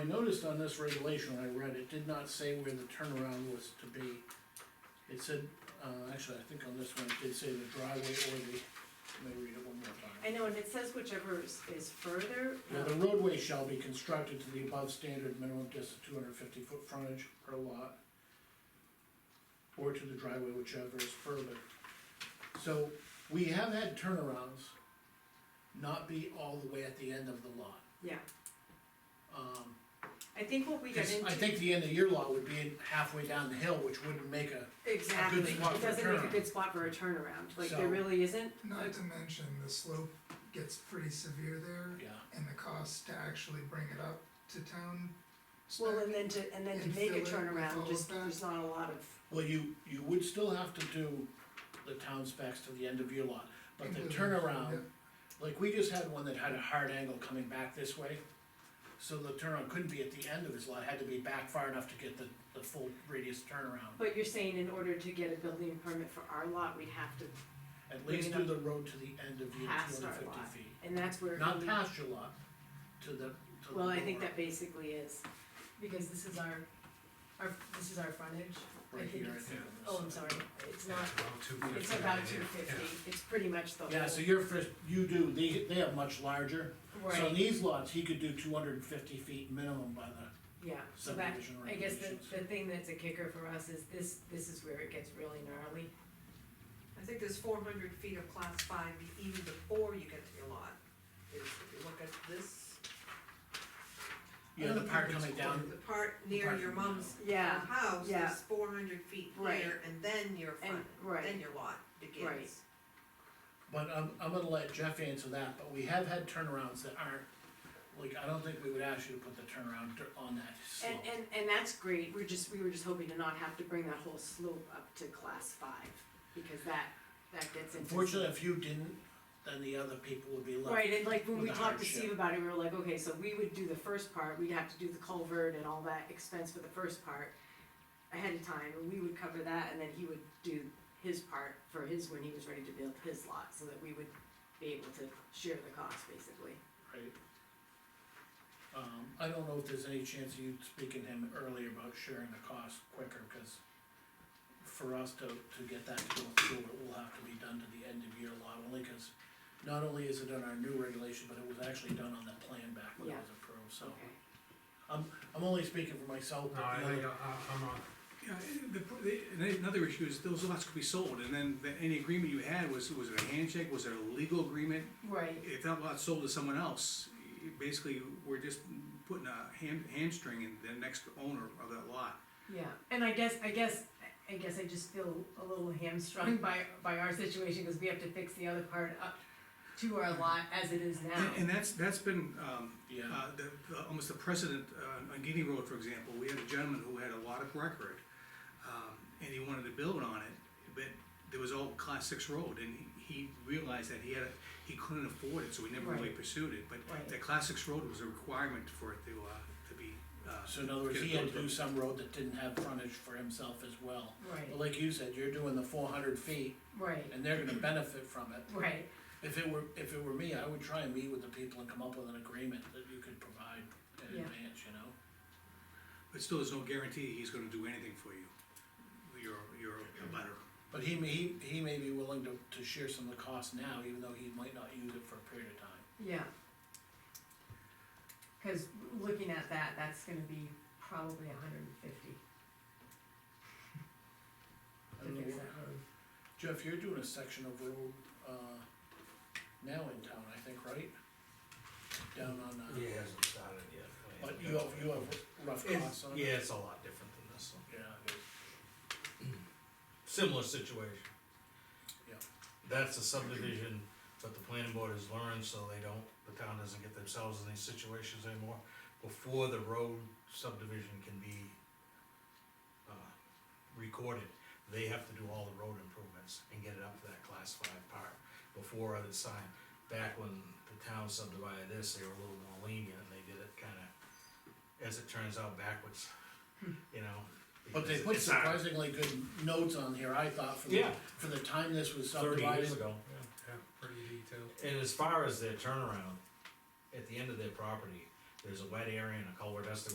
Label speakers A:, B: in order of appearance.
A: I noticed on this regulation, when I read, it did not say where the turnaround was to be. It said, uh, actually, I think on this one, it did say the driveway or the, let me read it one more time.
B: I know, and it says whichever is, is further, um,
A: Now, the roadway shall be constructed to the above standard minimum distance two hundred fifty foot frontage per lot. Or to the driveway, whichever is further. So, we have had turnarounds not be all the way at the end of the lot.
B: yeah,
A: Um,
B: I think what we got
A: Because
B: into.
A: I think the end of your lot would be halfway down the hill, which wouldn't make a,
B: Exactly,
A: good spot
B: it
A: for a
B: doesn't make a
A: turnaround.
B: good spot for a turnaround, like
A: So-
B: there really isn't,
C: Not to mention, the slope gets pretty severe there,
A: yeah.
C: and the cost to actually bring it up to town.
B: well,
C: spec.
B: and then to, and then to
C: And
B: make
C: fill
B: a
C: it with all
B: turnaround,
C: of
B: just,
C: that.
B: there's not a lot of,
A: Well, you, you would still have to do the town specs to the end of your lot, but the
C: Completely,
A: turnaround,
C: yeah.
A: like, we just had one that had a hard angle coming back this way. So the turnaround couldn't be at the end of his lot, it had to be back far enough to get the, the full radius turnaround.
B: but you're saying in order to get a building permit for our lot, we'd have to
A: At least do the road to the end of your
B: pass
A: two
B: our
A: hundred
B: lot,
A: fifty feet,
B: and that's where.
A: not
B: we-
A: past your lot, to the, to the.
B: Well, I think
A: door
B: that basically is,
D: because this is our, our, this is our frontage. I
A: Right
D: think
A: here, I
D: it's-
A: think. on this
D: Oh, I'm
A: side.
D: sorry, it's not,
B: it's about two fifty, it's pretty much the whole.
A: Yeah, so your first, you do, they, they have much larger. So in
D: right,
A: these lots, he could do two hundred and fifty feet minimum by the
D: yeah, so that,
A: subdivision
D: I guess
A: regulations.
D: the, the thing that's a kicker for us is this, this is where it gets really gnarly.
E: I think there's four hundred feet of class five even before you get to your lot. If if you look at this,
A: You know, the part coming down,
E: the part near
A: Part
E: your
A: from
E: mom's
B: Yeah,
E: house
B: yeah.
E: is four hundred feet
B: Right.
E: there, and then your
B: and,
E: front,
B: right,
E: then your lot begins.
B: Right.
A: but I'm, I'm gonna let Jeff answer that, but we have had turnarounds that aren't, like, I don't think we would ask you to put the turnaround dir- on that
B: and,
A: slope.
B: and, and that's great, we're just, we were just hoping to not have to bring that whole slope up to class five, because that, that gets into. some-
A: Unfortunately, if you didn't, then the other people would be left.
B: Right, and like when
A: with
B: we
A: the
B: talked to
A: hardship.
B: Steve about it, we were like, okay, so we would do the first part, we'd have to do the culvert and all that expense for the first part ahead of time, and we would cover that, and then he would do his part for his, when he was ready to build his lot, so that we would be able to share the cost, basically.
A: Right. Um, I don't know if there's any chance of you speaking to him earlier about sharing the cost quicker, cause for us to, to get that to go through, it will have to be done to the end of year lot, only cause not only is it on our new regulation, but it was actually done on the plan back when it
B: Yeah.
A: was approved, so.
B: Okay.
A: I'm only speaking for myself,
F: No,
A: but
F: I
A: the
F: think
A: other,
F: I, I- I'm on,
G: Yeah, the, the, and another issue is those lots could be sold, and then the- any agreement you had was, was it a handshake, was it a legal agreement?
B: Right.
G: If that lot's sold to someone else, you- basically, we're just putting a ham, hamstring in the next owner of that lot.
D: Yeah, and I guess, I guess, I guess I just feel a little hamstrung by, by our situation, cause we have to fix the other part up to our lot as it is now.
G: And, and that's, that's been, um,
A: yeah,
G: uh, the, the- almost the precedent, uh, on Guinea Road, for example, we had a gentleman who had a lot of record, um, and he wanted to build on it, but there was all class six road, and he realized that he had, a- he couldn't afford it, so he never really
D: Right.
G: pursued it, but
D: Right.
G: the class six road was a requirement for it to, uh, to be, uh.
A: so in other words,
G: get
A: he had to
G: built.
A: do some road that didn't have frontage for himself as well. But
D: Right,
A: like you said, you're doing the four hundred feet,
D: right,
A: and they're gonna benefit from it.
D: right,
A: If it were, if it were me, I would try and meet with the people and come up with an agreement that you could provide in
D: Yeah.
A: advance, you know?
G: But still, there's no guarantee he's gonna do anything for you, your, your butter.
A: But he may, he, he may be willing to, to share some of the cost now, even though he might not use it for a period of time.
D: yeah. Cause looking at that, that's gonna be probably a hundred and fifty
A: I
D: to
A: don't
D: fix
A: know.
D: that road.
A: Jeff, you're doing a section of road, uh, now in town, I think, right? Down on, uh,
H: He hasn't started yet.
A: but you have, you have rough
H: It's,
A: costs on it?
H: yeah, it's a lot different than this one.
A: Yeah, it is.
H: Similar situation.
A: Yeah.
H: That's a subdivision, but the planning board has learned, so they don't, the town doesn't get themselves in these situations anymore. Before the road subdivision can be, uh, recorded, they have to do all the road improvements and get it up to that class five part before it's signed. Back when the town subdivided this, they were a little more lenient, and they did it kinda, as it turns out, backwards, you know?
A: But they
H: because
A: put
H: it's our-
A: surprisingly good notes on here, I thought, for the,
H: Yeah.
A: for the time this was
H: thirty
A: subdivided.
H: years ago.
F: yeah, pretty detailed.
H: And as far as their turnaround, at the end of their property, there's a wet area and a culvert has to